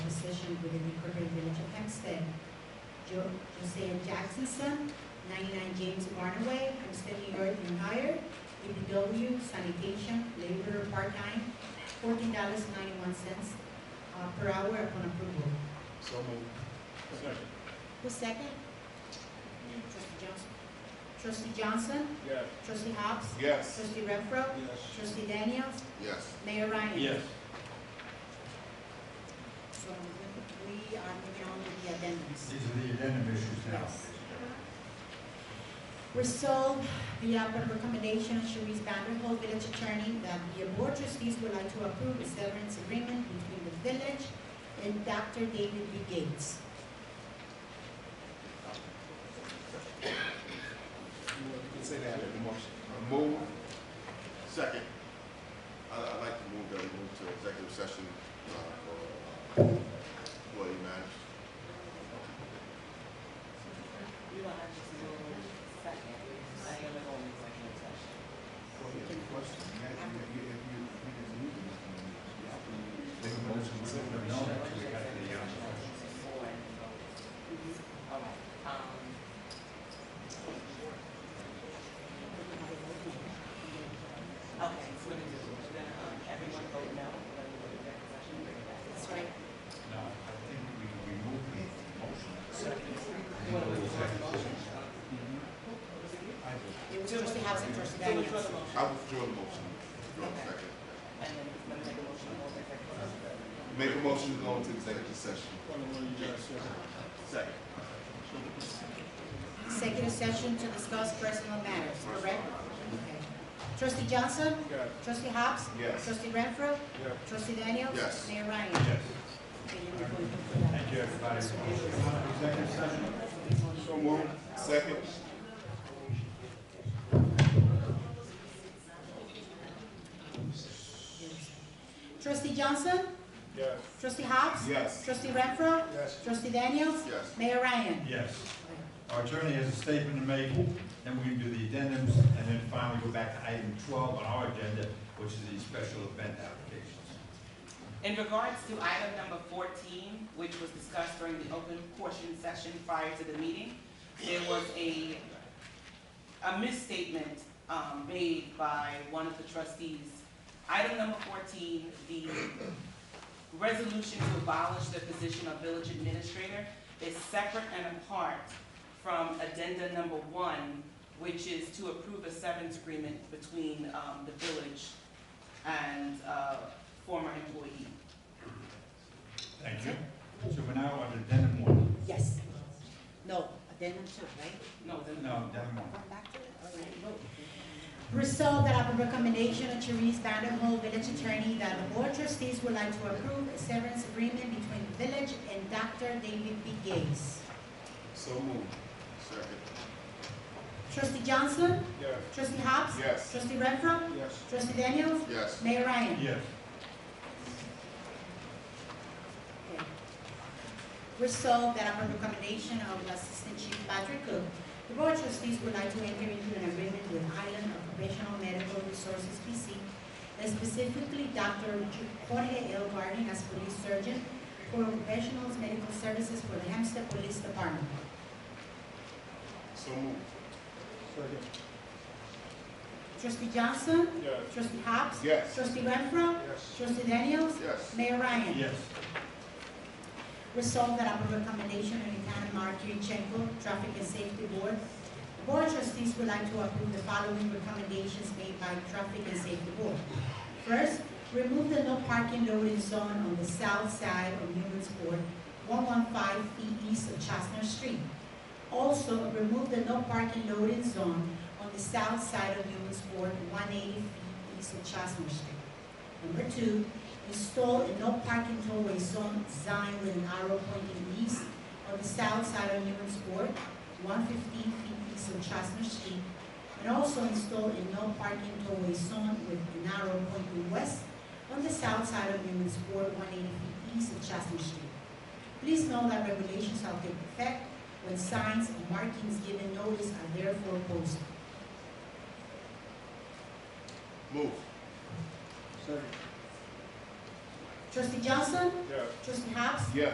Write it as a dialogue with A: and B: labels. A: within the incorporated village of Hempstead. Jo- Josiah Jackson's son, 99 James Barnaway, Hempstead, New York, and hired DPW sanitation laborer part-time, $14.91 uh, per hour upon approval.
B: So moved.
C: Second.
A: Who's second? Trustee Johnson. Trustee Johnson,
C: Yes.
A: trustee Hobbs,
B: Yes.
A: trustee Renfro,
B: Yes.
A: trustee Daniels,
B: Yes.
A: Mayor Ryan.
C: Yes.
A: So we are moving on to the addendums.
D: These are the addendum issues now.
A: Yes. Resolved via upon recommendation of Sharice Vanderhold, village attorney, that the board trustees would like to approve a severance agreement between the village and Dr. David B. Gates.
B: You can say that in the motion. Move.
E: Second, I- I'd like to move that we move to executive session uh, for uh, employee matters.
F: You don't have to do a second, I am going to second session. All right, um, okay, so what do you do? We're gonna, um, everyone vote no, we're gonna go to executive
A: That's
F: session, bring it back.
A: right.
D: No, I think we removed the motion.
F: What was your motion?
D: I did.
A: It was trustee Hobbs and trustee
F: So which was
A: Daniels.
F: the motion?
E: I withdraw the motion. Withdraw the second.
F: And then, let me make a motion, we'll make a motion.
E: Make a motion to go into executive session. Second.
A: Executive session to discuss personal matters, correct? Okay. Trustee Johnson,
C: Yes.
A: trustee Hobbs,
E: Yes.
A: trustee Renfro,
C: Yes.
A: trustee Daniels.
E: Yes.
A: Mayor Ryan.
C: Yes.
A: Okay, you're going to put that.
D: Thank you, everybody. Executive session.
E: So move. Second.
A: Trustee Johnson,
C: Yes.
A: trustee Hobbs.
E: Yes.
A: Trustee Renfro,
C: Yes.
A: trustee Daniels.
E: Yes.
A: Mayor Ryan.
D: Yes. Our attorney has a statement to make, then we can do the addendums, and then finally go back to item twelve on our agenda, which is the special event applications.
F: In regards to item number fourteen, which was discussed during the open portion session prior to the meeting, there was a, a misstatement, um, made by one of the trustees. Item number fourteen, the resolution to abolish the position of village administrator is separate and apart from addenda number one, which is to approve a severance agreement between, um, the village and, uh, former employee.
D: Thank you. So we're now on addendum one.
A: Yes. No, addendum two, right?
F: No, it's in the-
D: No, addendum one.
A: Come back to it. All right, vote. Resolved that upon recommendation of Therese Vanderhold, village attorney, that the board trustees would like to approve a severance agreement between the village and Dr. David B. Gates.
E: So move. Second.
A: Trustee Johnson,
C: Yes.
A: trustee Hobbs,
E: Yes.
A: trustee Renfro,
C: Yes.
A: trustee Daniels,
E: Yes.
A: Mayor Ryan.
D: Yes.
A: Resolved that upon recommendation of the Assistant Chief Patrick Cook, the Board of Trustees would like to enter into an agreement with Island Occupational Medical Resources PC, and specifically Dr. Jorge L. Garden as police surgeon for professionals medical services for the Hempstead Police Department.
E: So move.
C: Second.
A: Trustee Johnson,
C: Yes.
A: trustee Hobbs,
E: Yes.
A: trustee Renfro,
C: Yes.
A: trustee Daniels,
E: Yes.
A: Mayor Ryan.
D: Yes.
A: Resolved that upon recommendation of Lieutenant Mark Yurchenko, Traffic and Safety Board, the Board of Trustees would like to approve the following recommendations made by Traffic and Safety Board. First, remove the no parking loading zone on the south side of Newmansport, one one five feet east of Chestnut Street. Also, remove the no parking loading zone on the south side of Newmansport, one eighty feet east of Chestnut Street. Number two, install a no parking tollway zone sign with an arrow pointing east on the south side of Newman's Court, one fifteen feet east of Chestnut Street, and also install a no parking tollway zone with an arrow pointing west on the south side of Newman's Court, one eighty feet east of Chestnut Street. Please know that regulations shall take effect when signs and markings given notice are therefore posted.
E: Move.
C: Second.
A: Trustee Johnson,
C: Yes.
A: trustee Hobbs,
E: Yes.